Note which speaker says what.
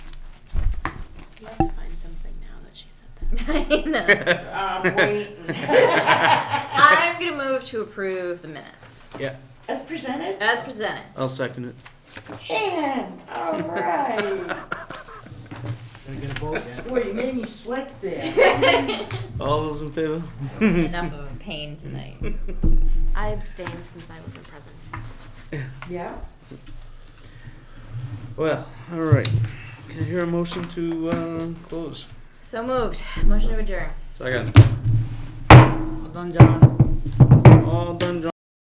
Speaker 1: You have to find something now that she said that.
Speaker 2: I know.
Speaker 3: I'm waiting.
Speaker 2: I'm gonna move to approve the minutes
Speaker 4: Yeah,
Speaker 3: As presented?
Speaker 2: as presented.
Speaker 4: I'll second it.
Speaker 3: And, all right.
Speaker 5: Gonna get a vote yet?
Speaker 3: Boy, you made me sweat there.
Speaker 4: All those in favor?
Speaker 2: Enough of a pain tonight.
Speaker 1: I abstained since I wasn't present.
Speaker 3: Yeah?
Speaker 4: Well, all right. Can I hear a motion to uh, close?
Speaker 2: So moved. Motion to adjourn.
Speaker 4: Second.
Speaker 5: Well done, John.
Speaker 4: All done, John.